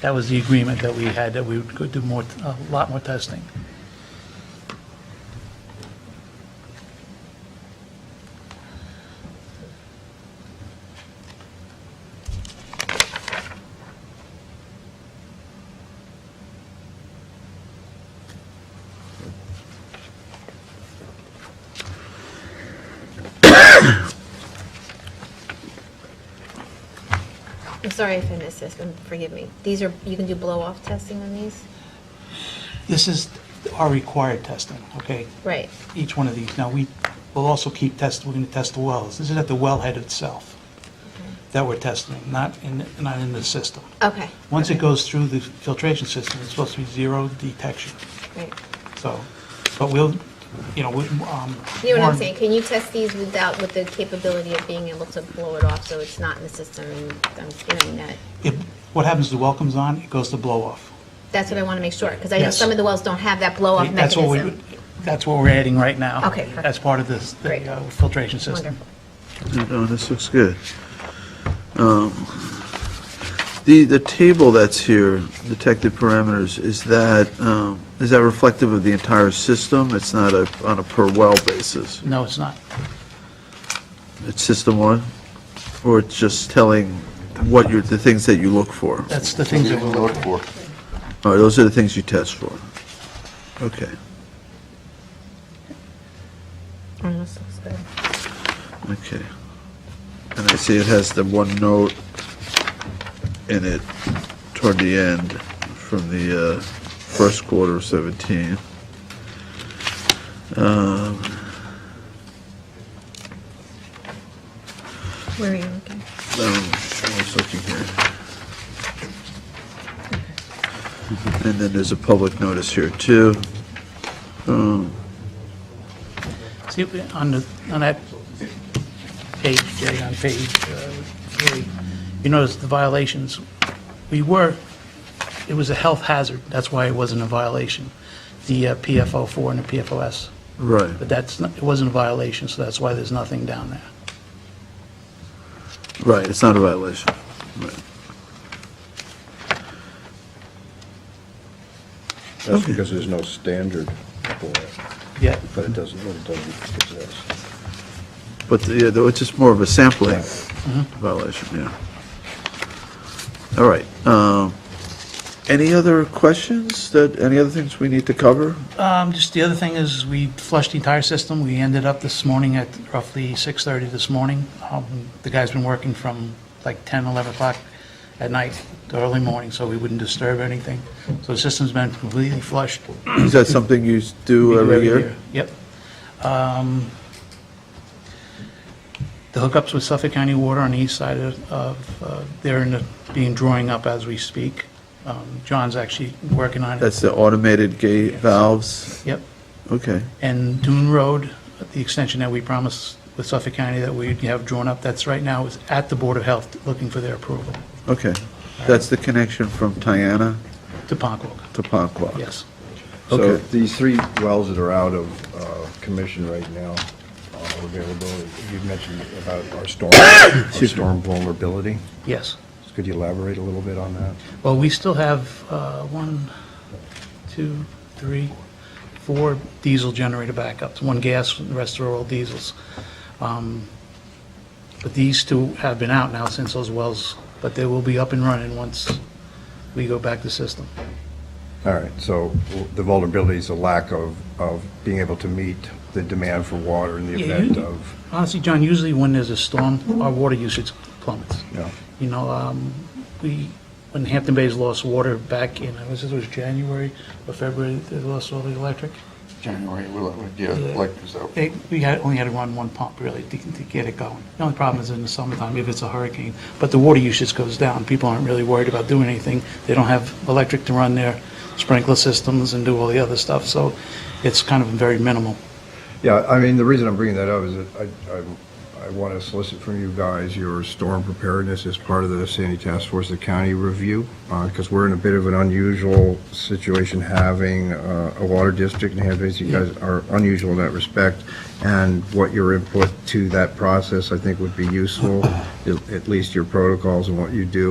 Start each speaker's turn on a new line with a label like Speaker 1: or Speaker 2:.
Speaker 1: That was the agreement that we had, that we would go do more, a lot more testing.
Speaker 2: I'm sorry if I missed this, and forgive me. These are, you can do blow-off testing on these?
Speaker 1: This is our required testing, okay?
Speaker 2: Right,
Speaker 1: Each one of these. Now, we will also keep test, we're going to test the wells. This is at the wellhead itself that we're testing, not in, not in the system.
Speaker 2: okay.
Speaker 1: Once it goes through the filtration system, it's supposed to be zero detection.
Speaker 2: Right.
Speaker 1: So, but we'll, you know, we, um.
Speaker 2: You know what I'm
Speaker 1: Warren-
Speaker 2: saying? Can you test these without, with the capability of being able to blow it off so it's not in the system? And um, I'm hearing that.
Speaker 1: It, what happens, the well comes on, it goes to blow off.
Speaker 2: That's what I want to make sure, because I know
Speaker 1: Yes.
Speaker 2: some of the wells don't have that blow-off
Speaker 1: That's what we,
Speaker 2: mechanism.
Speaker 1: that's what we're adding right now.
Speaker 2: Okay, perfect.
Speaker 1: As part of this, the
Speaker 2: Great.
Speaker 1: uh, filtration system.
Speaker 2: Wonderful.
Speaker 3: No, this looks good. Um, The, the table that's here, detected parameters, is that, um, is that reflective of the entire system? It's not a, on a per-well basis?
Speaker 1: No, it's not.
Speaker 3: It's system-wide? Or it's just telling what you're, the things that you look for?
Speaker 1: That's the things that we're looking for.
Speaker 3: All right, those are the things you test for? Okay,
Speaker 2: Mm, this looks good.
Speaker 3: okay. And I see it has the one note in it toward the end from the uh, first quarter of 17.
Speaker 2: Where are you looking?
Speaker 3: Um, I was looking here. And then there's a public notice here, too. Um,
Speaker 1: See, on the, on that page, Jay, on page uh, three, you notice the violations, we were, it was a health hazard, that's why it wasn't a violation, the uh, PFO four and the PFOS.
Speaker 3: Right.
Speaker 1: But that's, not- it wasn't a violation, so that's why there's nothing down there.
Speaker 3: Right, it's not a violation. Right.
Speaker 4: That's because there's no standard for it,
Speaker 1: Yeah,
Speaker 4: but it doesn't, it doesn't exist.
Speaker 3: But, yeah, though, it's just more of a sampling Uh-huh. violation, yeah. All right. um, Any other questions that, any other things we need to cover?
Speaker 1: Um, Just the other thing is, we flushed the entire system. We ended up this morning at roughly 6:30 this morning. Um, The guy's been working from like 10, 11 o'clock at night to early morning, so we wouldn't disturb anything. So the system's been completely flushed.
Speaker 3: Is that something you s- do every year?
Speaker 1: Yep. Um, The hookups with Suffolk County Water on the east side of- of, uh, they're in the- being drawing up as we speak. Um, John's actually working on it.
Speaker 3: That's the automated gate valves?
Speaker 1: Yep.
Speaker 3: Okay.
Speaker 1: And Dune Road, the extension that we promised with Suffolk County that we have drawn up, that's right now is at the Board of Health looking for their approval
Speaker 3: Okay, that's the connection from Tiana
Speaker 1: to Ponquag,
Speaker 3: to Ponquag?
Speaker 1: yes.
Speaker 4: So
Speaker 3: Okay.
Speaker 4: these three wells that are out of uh, commission right now, uh, availability, you mentioned about our storm, our storm vulnerability.
Speaker 1: Yes.
Speaker 4: Could you elaborate a little bit on that?
Speaker 1: Well, we still have uh, one, two, three, four diesel generator backups, one gas, the rest are all diesels. Um, But these two have been out now since those wells, but they will be up and running once we go back to system.
Speaker 4: All right, so the vulnerability is a lack of, of being able to meet the demand for water in the
Speaker 1: Yeah,
Speaker 4: event
Speaker 1: you-
Speaker 4: of,
Speaker 1: Honestly, John, usually when there's a storm, our water usage plummets.
Speaker 4: you know,
Speaker 1: You know, um, we, when Hampton Bays lost water back in, I was, it was January or February, they lost all the electric.
Speaker 5: January, we'll, we'll- yeah,
Speaker 1: Yeah.
Speaker 5: like, so,
Speaker 1: They, we had, only had to run one pump really to, to get it going. The only problem is in the summertime if it's a hurricane, but the water usage goes down. People aren't really worried about doing anything. They don't have electric to run their sprinkler systems and do all the other stuff, so it's kind of very minimal.
Speaker 4: Yeah, I mean, the reason I'm bringing that up is that I, I, I want to solicit from you guys your storm preparedness as part of the Sandy Task Force, the county review, because we're in a bit of an unusual situation having uh, a water district in Hampton Bays. You guys are unusual in that respect, and what your input to that process, I think, would be useful, at at least your protocols and what you do